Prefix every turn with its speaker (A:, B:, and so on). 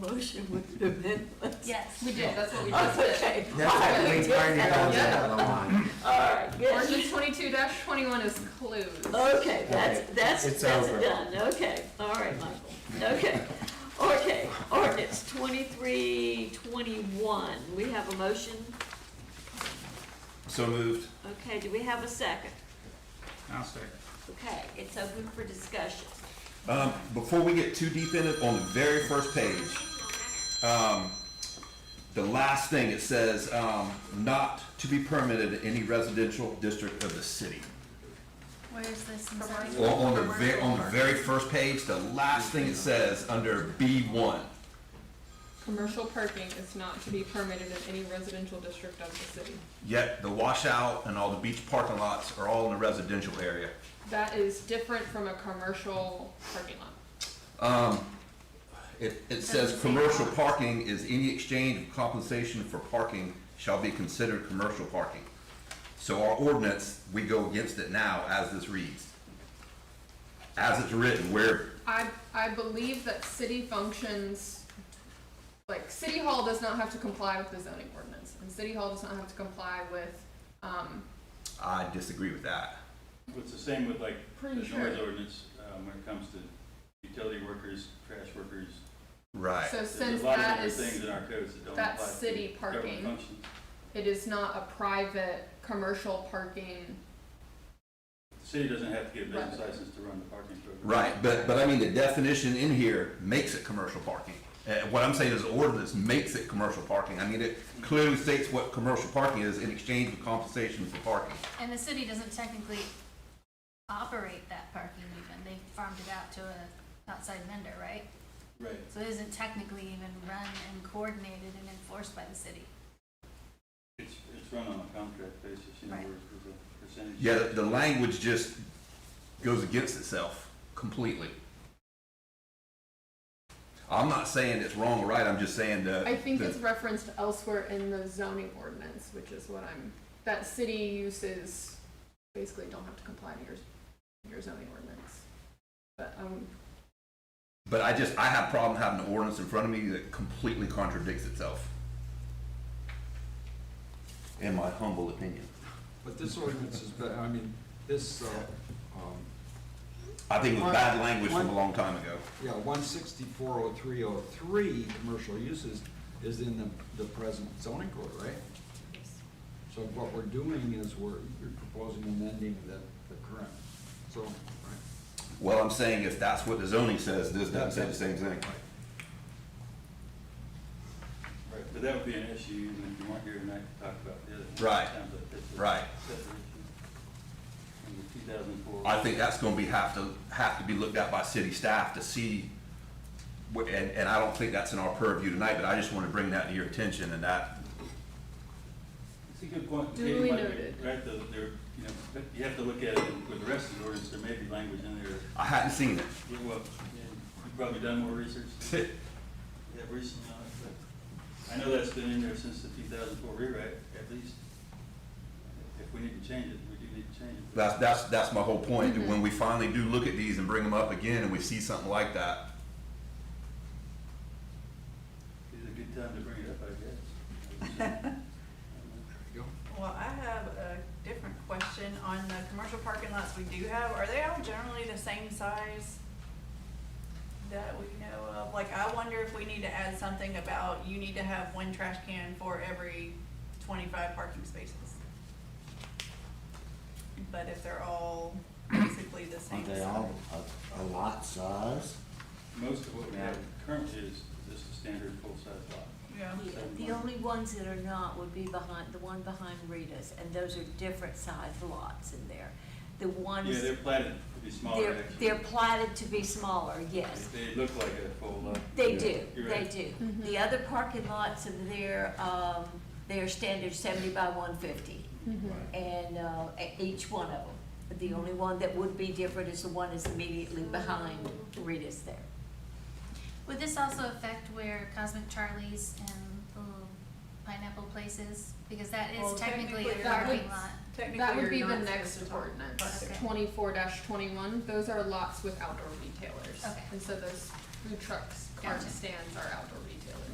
A: Motion with the amendments.
B: Yes.
C: We did, that's what we just did.
A: Okay.
D: That's
A: All
D: what
A: right,
D: we
A: good.
D: turned it on the other one.
A: All right, good.
C: Ordinance twenty-two twenty-one is closed.
A: Okay, that's,
D: Okay,
A: that's,
D: it's
A: that's
D: over.
A: done, okay, all right, Michael, okay. Okay, ordinance twenty-three, twenty-one, we have a motion,
E: So moved.
A: okay, do we have a second?
F: I'll second.
A: Okay, it's open for discussion.
E: Um, before we get too deep in it, on the very first page, um, the last thing, it says, um, not to be permitted in any residential district of the city.
B: Where is this? in
C: Commercial.
E: On,
B: Southie?
E: on the very, on the very first page, the last thing it says under B one.
C: Commercial parking is not to be permitted in any residential district of the city.
E: Yet the washout and all the beach parking lots are all in the residential area.
C: That is different from a commercial parking lot.
E: Um, it, it says,
B: Doesn't say
E: commercial
B: how.
E: parking is any exchange of compensation for parking shall be considered commercial parking. So our ordinance, we go against it now as this reads. As it's written, where,
C: I, I believe that city functions, like, city hall does not have to comply with the zoning ordinance, and city hall does not have to comply with, um,
E: I disagree with that.
G: It's the same with like the
C: Pretty
G: noise
C: sure.
G: ordinance, um, when it comes to utility workers, trash workers.
E: Right.
C: so since
G: There's a lot of
C: that
G: different
C: is.
G: things in our codes that don't apply.
C: that's
G: to
C: city
G: government
C: parking.
G: functions.
C: it is not a private commercial parking.
G: The city doesn't have to get a business
C: Right.
G: license to run the parking program.
E: Right, but, but I mean, the definition in here makes it commercial parking. Uh, what I'm saying is the ordinance makes it commercial parking. I mean, it clearly states what commercial parking is in exchange of compensation for parking.
B: And the city doesn't technically operate that parking even, they farmed it out to a outside vendor, right?
G: Right.
B: So it isn't technically even run and coordinated and enforced by the city.
G: It's, it's run on a contract basis, you know,
B: Right.
G: where it's a percentage.
E: Yeah, the, the language just goes against itself completely. I'm not saying it's wrong or right, I'm just saying the.
C: I think
E: the-
C: it's referenced elsewhere in the zoning ordinance, which is what I'm, that city uses basically don't have to comply to your, your zoning ordinance. But, um,
E: But I just, I have a problem having an ordinance in front of me that completely contradicts itself. In my humble opinion.
H: But this ordinance is, ba- I mean, this, uh, um,
E: I think it was bad language from a long time ago.
H: yeah, one sixty-four oh three oh three, commercial uses, is in the, the present zoning code, right? So what we're doing is we're, you're proposing amending the, the current zoning, right?
E: Well, I'm saying if that's what the zoning says, this doesn't say the same thing.
G: Right, but that would be an issue, even if you weren't here tonight to talk about the other.
E: Right.
G: times, but it's a
E: Right.
G: separate issue. And the two thousand four.
E: I think that's gonna be, have to, have to be looked at by city staff to see, wh- and, and I don't think that's in our purview tonight, but I just wanna bring that to your attention and that,
G: It's a good point.
C: Duly
G: Katie might be
C: noted.
G: Right, though, there, you know, but you have to look at it with the rest of the ordinance, there may be language in there
E: I hadn't seen it.
G: Yeah, well, yeah, you've probably done more research than we have recently on it, but I know that's been in there since the two thousand four rewrite, at least. If we need to change it, we do need to change it.
E: That's, that's, that's my whole point, that when we finally do look at these and bring them up again and we see something like that,
G: It's a good time to bring it up, I guess.
H: There you
I: Well, I have a different question on the commercial parking lots we do have. Are they all generally the same size that we know of? Like, I wonder if we need to add something about you need to have one trash can for every twenty-five parking spaces. But if they're all basically the same
D: Aren't they
I: size.
D: all a, a lot size?
G: Most of what we have currently is just a standard full-size lot.
I: Yeah.
J: The only ones that are not would be behind, the one behind Rita's, and those are different sized lots in there. The
G: Yeah,
J: ones,
G: they're platted to be smaller,
J: they're,
G: actually.
J: they're platted to be smaller, yes.
G: They look like a full lot.
J: They
G: Yeah,
J: do,
G: you're
J: they
G: right.
J: do. The other parking lots are there, um, they're standard seventy by one fifty.
I: Mm-hmm.
J: And, uh, e- each one of them. But the only one that would be different is the one that's immediately behind Rita's there.
B: Would this also affect where Cosmic Charlie's and the little pineapple places, because that
I: Well,
B: is technically a
I: technically,
C: that
B: parking
C: would-
B: lot?
C: that would
I: Technically,
C: be
I: you're
C: the
I: not supposed
C: next
I: to talk
C: ordinance,
I: about it.
C: twenty-four twenty-one, those are lots with outdoor retailers.
B: Okay.
C: And so those food trucks, cart
B: Gotcha.
C: stands are outdoor retail.